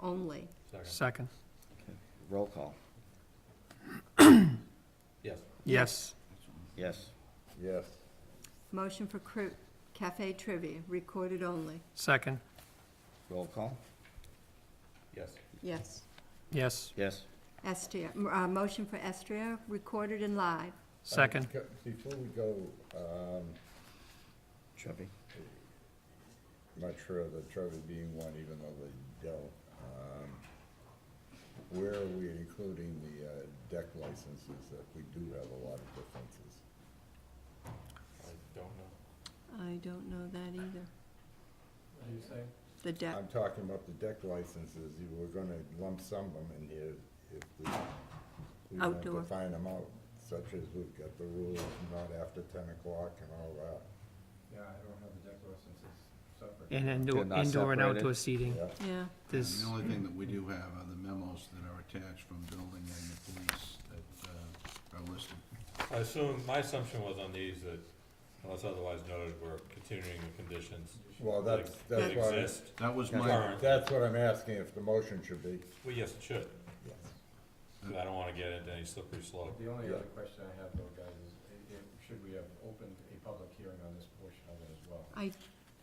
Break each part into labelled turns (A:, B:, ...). A: only.
B: Second.
C: Second.
D: Roll call.
B: Yes.
C: Yes.
D: Yes.
E: Yes.
A: Motion for cru- cafe trivia, recorded only.
C: Second.
D: Roll call.
B: Yes.
A: Yes.
C: Yes.
D: Yes.
A: Estria, m- uh, motion for Estria, recorded and live.
C: Second.
E: Uh, Before we go, um,
D: Chubby.
E: I'm not sure of the Trevor being one, even though they don't. um, Where are we including the uh, deck licenses if we do have a lot of differences?
B: I don't know.
A: I don't know that either.
F: Are you saying?
A: The deck,
E: I'm talking about the deck licenses, you were gonna lump some of them in here if we, we want to
A: Outdoor.
E: find them out, such as we've got the rules not after ten o'clock and all that.
F: Yeah, I don't have the deck licenses separate.
C: And
D: They're
C: indoor,
D: not
C: indoor and
D: separated.
C: outdoor seating.
E: Yeah,
A: yeah.
C: This,
G: The only thing that we do have are the memos that are attached from building and the police that uh, are listed.
B: I assume, my assumption was on these that unless otherwise noted, we're continuing the conditions
E: well,
B: that
E: Oh, that's,
B: ex- that
E: that's why,
B: exist.
G: That was my,
B: Current.
E: that's what I'm asking, if the motion should be,
B: Well, yes, it should,
E: yes.
B: 'cause I don't wanna get into any slippery slope.
F: The only
E: Yeah.
F: other question I have though, guys, is, i- i- should we have opened a public hearing on this portion of it as well?
A: I,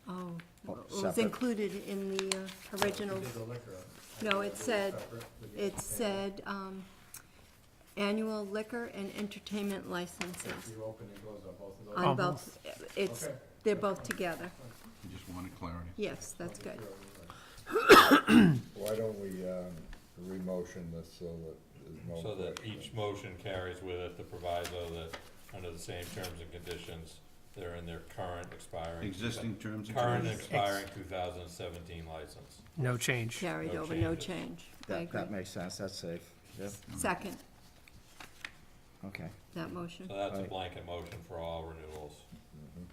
A: oh,
D: Oh,
A: it was
D: separate.
A: included in the uh, original.
F: We did the liquor. I
A: No,
F: thought
A: it
F: was
A: said-
F: separate with the
A: It
F: entertainment.
A: said, um, annual liquor and entertainment
F: If
A: licenses.
F: you open and close on both of those.
A: On both, it's,
F: Uh-huh. Okay.
A: they're both together.
G: I just wanted clarity.
A: Yes, that's good.
E: Why don't we, um, re-motion this so that there's no.
B: So that
E: question?
B: each motion carries with it the proviso that under the same terms and conditions, they're in their current expiring.
G: Existing terms and
B: Current
G: conditions.
B: expiring two thousand and seventeen license.
C: no change.
A: Carried
B: No
A: over, no
B: changes.
A: change. I
D: That,
A: agree.
D: that makes sense. That's safe. Yep.
A: Second,
D: Okay.
A: that motion.
B: So that's a
D: Right.
B: blanket motion for all renewals.
E: Mm-hmm.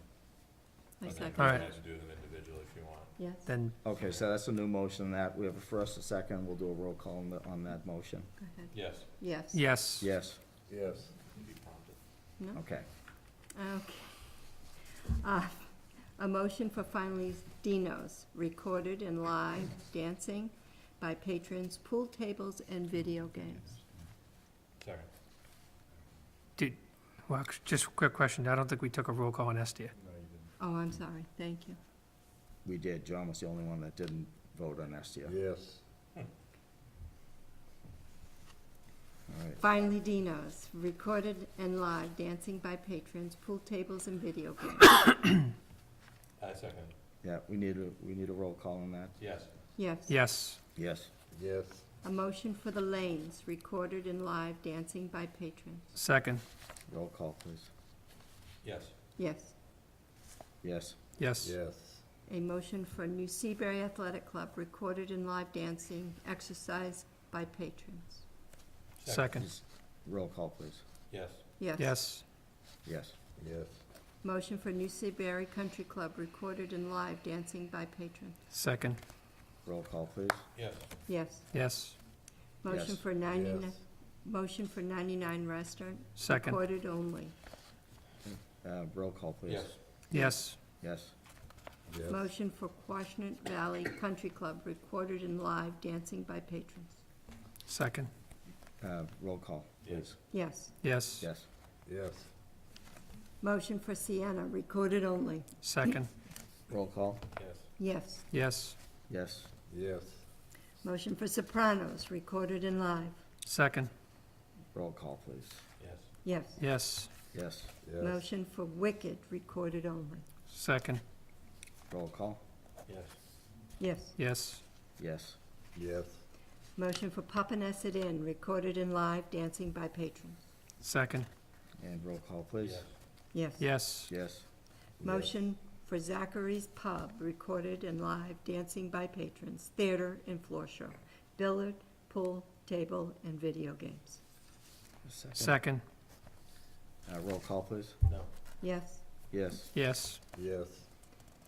A: I
B: And then
A: second.
B: you
C: Alright.
B: guys can do them individually if you want.
A: Yes.
C: Then,
D: Okay, so that's a new motion that we have a first, a second. We'll do a roll call on, the- on that motion.
A: Go ahead.
B: Yes.
A: Yes.
C: yes.
D: Yes.
E: Yes,
A: No?
D: Okay.
A: Okay. Uh, A motion for finally Dino's, recorded and live dancing by patrons, pool tables, and video games.
B: Second.
C: Did, well, actu- just a quick question. I don't think we took a roll call on Estia.
A: Oh, I'm sorry, thank you.
D: We did. John was the only one that didn't vote on STO.
E: yes.
D: All right.
A: Finally Dino's, recorded and live dancing by patrons, pool tables, and video games.
B: I second.
D: Yeah, we need a, we need a roll call on that.
B: Yes.
A: Yes.
C: Yes.
D: Yes.
E: Yes,
A: A motion for the lanes, recorded and live dancing by patrons.
C: Second.
D: Roll call, please.
B: Yes.
A: Yes.
D: Yes.
C: Yes.
E: yes,
A: A motion for New Seabury Athletic Club, recorded and live dancing exercise by patrons.
C: Second.
D: Just Roll call, please.
B: Yes.
A: Yes.
C: Yes.
D: Yes.
E: yes,
A: Motion for New Seabury Country Club, recorded and live dancing by patrons.
C: Second.
D: Roll call, please.
B: Yes.
A: Yes.
C: Yes.
A: Motion
D: Yes.
A: for
E: yes,
A: ninety-nine, motion for ninety-nine restaurant,
C: Second.
A: recorded only.
D: Uh, roll call, please.
B: Yes.
C: Yes.
D: Yes.
E: yes,
A: Motion for Quashnet Valley Country Club, recorded and live dancing by patrons.
C: Second.
D: Uh, roll call,
B: Yes.
D: please.
A: Yes.
C: Yes.
D: Yes.
E: yes,
A: Motion for Sienna, recorded only.
C: Second.
D: Roll call.
B: Yes.
A: Yes.
C: Yes.
D: Yes.
E: yes,
A: Motion for Sopranos, recorded and live.
C: Second.
D: Roll call, please.
B: Yes.
A: Yes.
C: Yes.
D: Yes.
E: yes,
A: Motion for Wicked, recorded only.
C: Second.
D: Roll call.
B: Yes.
A: Yes.
C: Yes.
D: Yes.
E: yes,
A: Motion for Papaneset Inn, recorded and live, dancing by patrons.
C: Second.
D: And roll call, please.
B: Yes.
A: Yes.
C: Yes.
D: Yes.
A: Motion for Zachary's Pub, recorded and live, dancing by patrons, theater and floor show, billiard, pool, table, and video games.
C: Second.
D: Uh, roll call, please.
B: No.
A: Yes.
D: Yes.
C: Yes.
E: yes,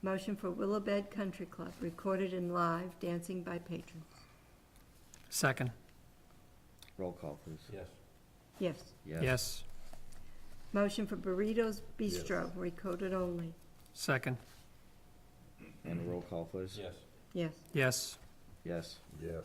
A: Motion for Willowbed Country Club, recorded and live, dancing by patrons.
C: Second.
D: Roll call, please.
B: Yes.
A: Yes.
C: Yes.
A: Motion for Burritos
E: Yes.
A: Bistro, recorded only.
C: Second.
D: And roll call, please.
B: Yes.
A: Yes.
C: Yes.
D: Yes.
E: yes.